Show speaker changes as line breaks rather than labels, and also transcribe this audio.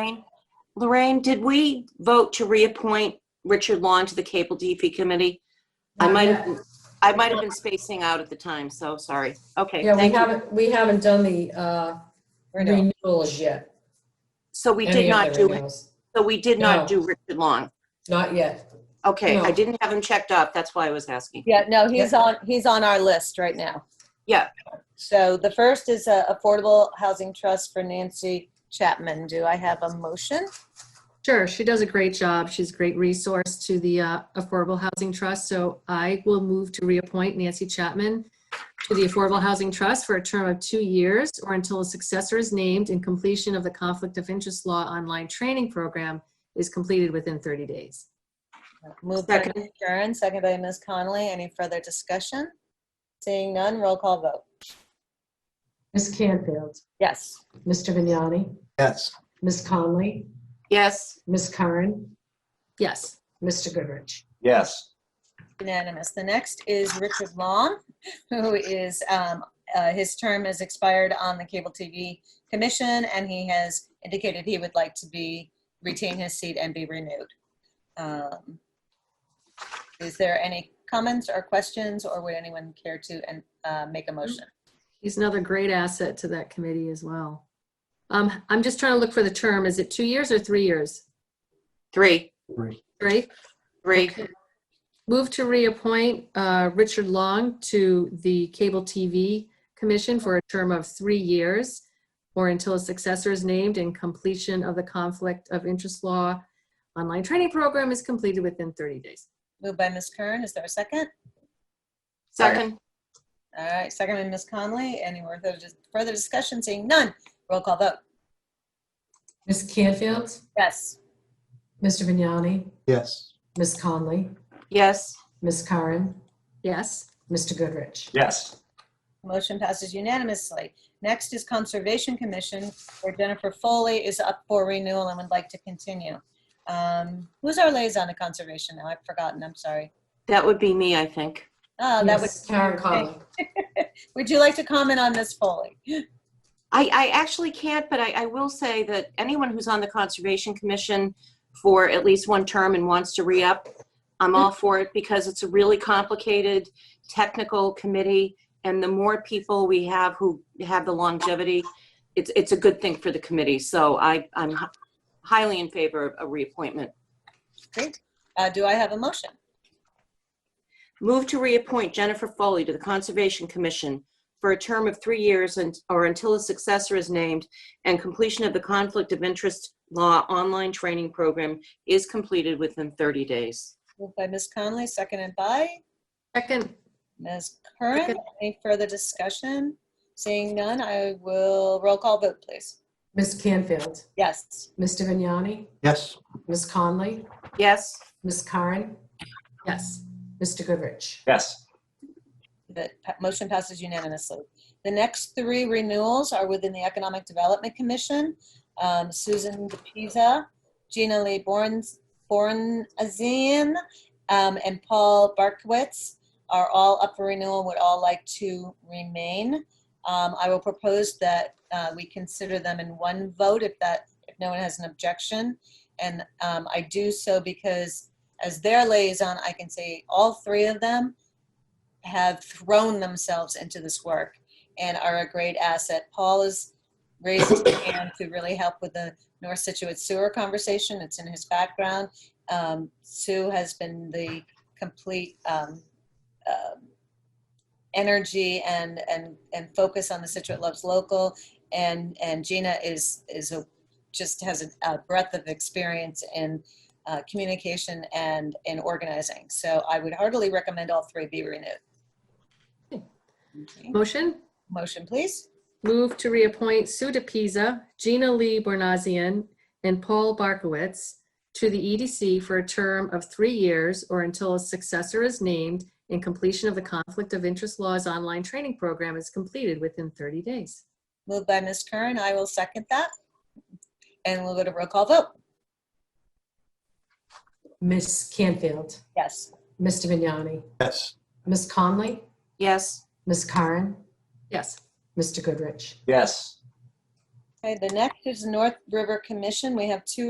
Lorraine- Lorraine, did we vote to reappoint Richard Long to the Cable DP Committee? I
Not
might,
yet.
have I might have been spacing out at the time, so sorry. Okay,
Yeah, we
thank you.
haven't, we haven't done the uh, renewals yet.
So we
Any
did
of
not
the
do, it.
renewals.
so we did
No.
not do Richard Long.
Not yet.
Okay, I
No.
didn't have him checked off, that's why I was asking.
Yeah, no, he's on, he's on our list right now.
Yeah.
So the first is uh, Affordable Housing Trust for Nancy Chapman. Do I have a motion?
Sure, she does a great job. She's a great resource to the uh, Affordable Housing Trust. So I will move to reappoint Nancy Chapman to the Affordable Housing Trust for a term of two years or until a successor is named and completion of the Conflict of Interest Law online training program is completed within 30 days.
Moved by
Second.
Ms. Curran, second by Ms. Connolly. Any further discussion? Seeing none, roll call vote.
Ms. Canfield,
Yes.
Mr. Vignani,
Yes,
Ms. Conley,
Yes,
Ms. Curran,
Yes,
Mr. Goodrich.
yes,
Unanimous. The next is Richard Long, who is, um, uh, his term has expired on the Cable TV Commission, and he has indicated he would like to be, retain his seat and be renewed. Um, Is there any comments or questions, or would anyone care to, and, uh, make a motion?
he's another great asset to that committee as well. Um, I'm just trying to look for the term. Is it two years or three years?
three,
Right?
three.
Move to reappoint uh, Richard Long to the Cable TV Commission for a term of three years or until a successor is named and completion of the Conflict of Interest Law online training program is completed within 30 days.
Moved by Ms. Kern. Is there a second?
Second,
All right, second by Ms. Conley. Any more further further discussion? Seeing none, roll call vote.
Ms. Canfield,
Yes.
Mr. Vignani,
yes,
Ms. Conley,
yes,
Ms. Curran,
Yes,
Mr. Goodrich.
yes,
Motion passes unanimously. Next is Conservation Commission, where Jennifer Foley is up for renewal and would like to continue. Um, Who's our liaison to conservation now? I've forgotten, I'm sorry.
that would be me, I think.
Oh, that would,
Ms. Karen Conley.
would you like to comment on Ms. Foley?
I, I actually can't, but I, I will say that anyone who's on the Conservation Commission for at least one term and wants to re-up, I'm all for it because it's a really complicated, technical committee. And the more people we have who have the longevity, it's, it's a good thing for the committee. So I, I'm hi- highly in favor of a reappointment.
Great. Uh, Do I have a motion?
Move to reappoint Jennifer Foley to the Conservation Commission for a term of three years and, or until a successor is named and completion of the Conflict of Interest Law online training program is completed within 30 days.
Moved by Ms. Conley, seconded by
second,
Ms. Curran.
Second.
Any further discussion? Seeing none, I will roll call vote, please.
Ms. Canfield,
Yes.
Mr. Vignani,
yes,
Ms. Conley,
Yes,
Ms. Curran,
yes,
Mr. Goodrich.
yes,
The pa- motion passes unanimously. The next three renewals are within the Economic Development Commission. Um, Susan DePisa, Gina Lee Borns- Bornazine, um, and Paul Barkowitz are all up for renewal, would all like to remain. Um, I will propose that uh, we consider them in one vote if that, if no one has an objection. And um, I do so because as their liaison, I can say all three of them have thrown themselves into this work and are a great asset. Paul has raised his hand to really help with the North Situate sewer conversation. It's in his background. Um, Sue has been the complete um, um energy and and and focus on the Situate Loves Local, and and Gina is is a just has a, a breadth of experience in uh, communication and in organizing. So I would heartily recommend all three be renewed. Okay.
motion?
Motion, please.
Move to reappoint Sue DePisa, Gina Lee Bornazian, and Paul Barkowitz to the EDC for a term of three years or until a successor is named and completion of the Conflict of Interest Laws online training program is completed within 30 days.
Moved by Ms. Curran. I will second that. And we'll go to roll call vote.
Ms. Canfield,
Yes.
Mr. Vignani,
yes,
Ms. Conley,
yes,
Ms. Curran,
Yes,
Mr. Goodrich.
yes,
Okay, the next is North River Commission. We have two